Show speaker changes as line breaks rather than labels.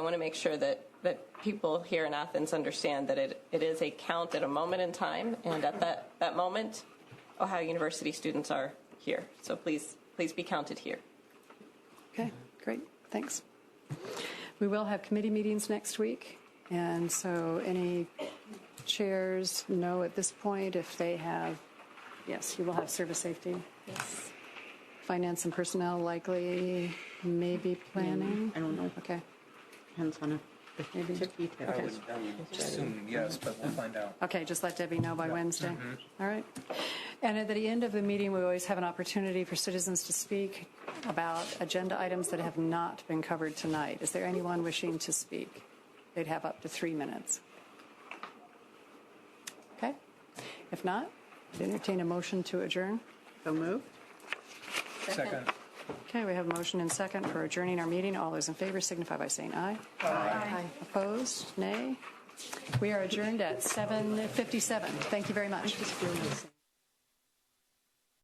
I want to make sure that, that people here in Athens understand that it, it is a count at a moment in time, and at that, that moment, Ohio University students are here. So please, please be counted here.
Okay, great, thanks. We will have committee meetings next week, and so any chairs know at this point if they have, yes, you will have service safety. Yes. Finance and personnel likely, maybe planning?
I don't know.
Okay,
Depends on if they took details.
okay.
Soon, yes, but we'll find out.
Okay, just let Debbie know by Wednesday. All right. And at the end of the meeting, we always have an opportunity for citizens to speak about agenda items that have not been covered tonight. Is there anyone wishing to speak? They'd have up to three minutes. Okay? If not, I'd entertain a motion to adjourn.
So moved.
Second.
Okay, we have a motion and second for adjourning our meeting. All those in favor signify by saying aye. Aye. Opposed? Nay? We are adjourned at 7:57. Thank you very much.